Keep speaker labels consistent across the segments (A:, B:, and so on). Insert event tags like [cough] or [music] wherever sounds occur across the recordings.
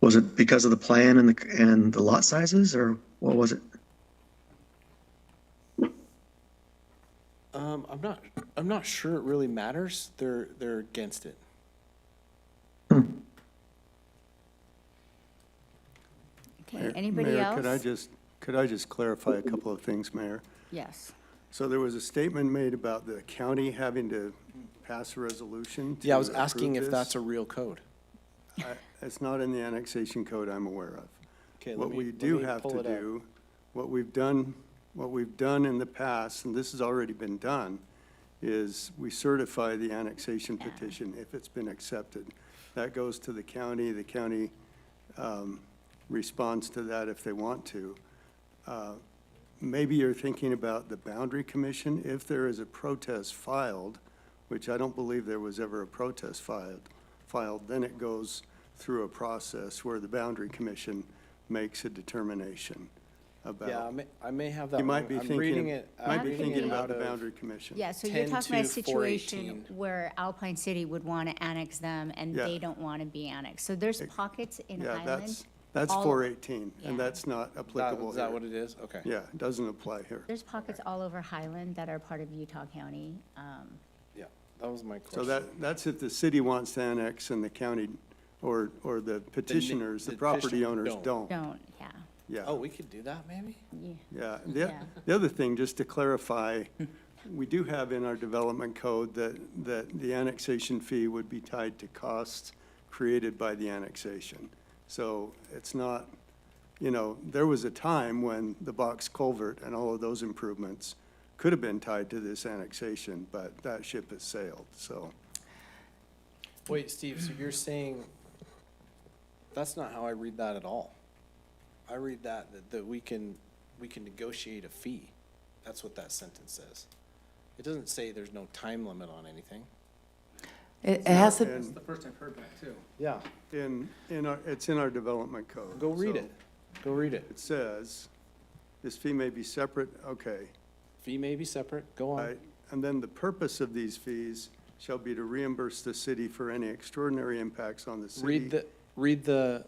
A: Was it because of the plan and the, and the lot sizes or what was it?
B: Um, I'm not, I'm not sure it really matters. They're, they're against it.
C: Okay, anybody
D: Mayor,
C: else?
D: could I just, could I just clarify a couple of things, Mayor?
C: Yes.
D: So there was a statement made about the county having to pass a resolution to
B: Yeah, I was asking if
D: approve
B: that's a
D: this.
B: real code.
D: I- It's not in the annexation code I'm aware of.
B: Okay, let
D: What
B: me-
D: we
B: let
D: do
B: me
D: have
B: pull
D: to
B: it up.
D: do, what we've done, what we've done in the past, and this has already been done, is we certify the annexation petition if it's been accepted. That goes to the county, the county um, responds to that if they want to. Uh, Maybe you're thinking about the Boundary Commission, if there is a protest filed, which I don't believe there was ever a protest filed, filed, then it goes through a process where the Boundary Commission makes a determination
B: Yeah, I
D: about.
B: may, I may have that.
D: You might
B: wrong.
D: be
B: I'm reading
D: thinking,
B: it.
D: might
B: I'm
D: be
B: reading
D: thinking
B: it
D: about
B: out
D: the
B: of-
D: Boundary Commission.
C: Yeah, so you're
B: 10
C: talking about
B: to
C: a situation
B: 418.
C: where Alpine City would want to annex them and
D: Yeah.
C: they don't want to be annexed. So there's pockets in
D: Yeah,
C: Highland.
D: that's, that's
C: all-
D: 418,
C: yeah.
D: and that's not
B: That,
D: applicable
B: is that what
D: here.
B: it is? Okay.
D: Yeah, it doesn't apply here.
C: There's pockets all over Highland that are part of Utah County. Um,
B: Yeah, that was my
D: So
B: question.
D: that, that's if the city wants to annex and the county, or, or the petitioners, the
B: the
D: property
B: petitioner
D: owners
B: don't.
D: don't.
C: Don't, yeah.
B: Oh,
D: Yeah,
B: we could do that maybe?
C: yeah.
D: yeah. The,
C: Yeah.
D: the other thing, just to clarify, we do have in our development code that, that the annexation fee would be tied to costs created by the annexation. So it's not, you know, there was a time when the box culvert and all of those improvements could have been tied to this annexation, but that ship has sailed, so.
B: Wait, Steve, so you're saying, that's not how I read that at all. I read that, that, that we can, we can negotiate a fee. That's what that sentence says. It doesn't say there's no time limit on anything.
E: It it has to,
D: And-
F: The first I've heard that too.
B: Yeah,
D: In, in our, it's in our development code.
B: go read
D: so
B: it. Go read it.
D: It says, this fee may be separate, okay,
B: Fee may be separate, go
D: all
B: on.
D: right. And then the purpose of these fees shall be to reimburse the city for any extraordinary impacts on the city.
B: Read the, read the,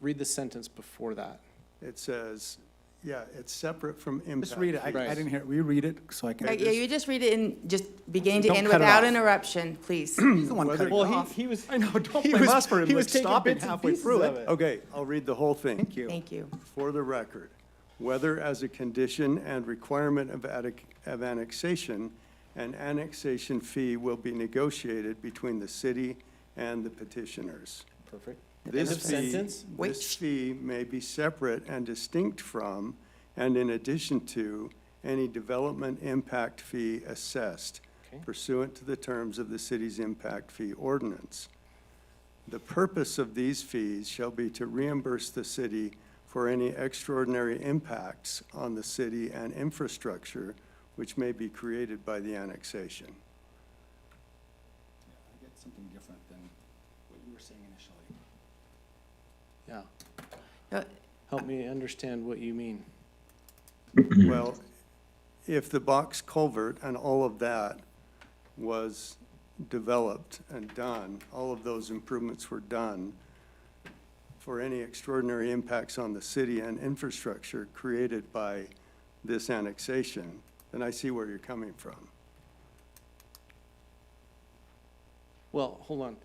B: read the sentence before that.
D: It says, yeah, it's separate from impact.
F: Just read it. I, I
B: Right.
F: didn't hear it. Will you read it so I can?
G: Uh, Yeah, you just read it in, just beginning to
F: Don't
G: end
F: cut it
G: without
F: off.
G: interruption, please.
F: [clears throat] He's the one
D: Whether-
F: cutting it off.
B: he was.
F: I know, don't
B: he
F: blame
B: was-
F: us for
B: he
F: him,
B: was
F: like
B: taking
F: stopping
B: bits and
F: halfway
B: pieces
F: through
B: of
F: it.
D: Okay, I'll read the whole thing.
F: Thank you.
G: Thank you.
D: for the record, whether as a condition and requirement of attic- of annexation, an annexation fee will be negotiated between the city and the petitioners.
B: Perfect. End
D: This
B: of
D: fee-
B: sentence?
G: Wait.
D: This fee may be separate and distinct from, and in addition to, any development impact fee assessed
B: Okay.
D: pursuant to the terms of the city's impact fee ordinance. The purpose of these fees shall be to reimburse the city for any extraordinary impacts on the city and infrastructure which may be created by the annexation.
F: I get something different than what you were saying initially.
B: Yeah,
G: Uh,
B: help me understand what you mean. Hmm.
D: Well, if the box culvert and all of that was developed and done, all of those improvements were done for any extraordinary impacts on the city and infrastructure created by this annexation, then I see where you're coming from.
B: Well, hold on.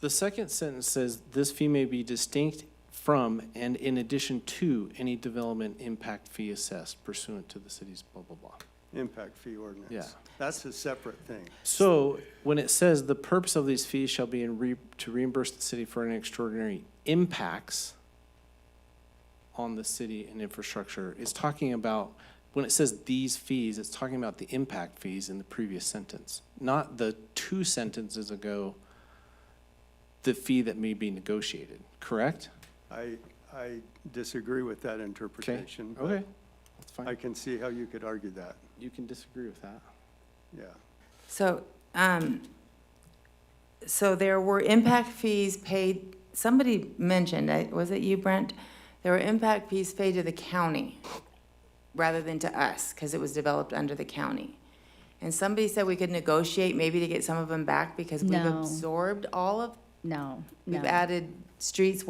B: The second sentence says, "This fee may be distinct from and in addition to any development impact fee assessed pursuant to the city's blah, blah, blah."
D: Impact fee ordinance.
B: Yeah.
D: That's a separate thing.
B: So when it says, "The purpose of these fees shall be in re, to reimburse the city for any extraordinary impacts on the city and infrastructure," it's talking about, when it says "these fees," it's talking about the impact fees in the previous sentence, not the two sentences ago, the fee that may be negotiated, correct?
D: I, I disagree with that interpretation. but
B: Okay, that's
D: I
B: fine.
D: can see how you could argue that,
B: You can disagree with that.
D: yeah.
G: So, um, so there were impact fees paid, somebody mentioned, I- was it you, Brent? There were impact fees paid to the county rather than to us, because it was developed under the county. And somebody said we could negotiate maybe to get some of them back because we've
C: No.
G: absorbed all of,
C: No, no.
G: we've added streets,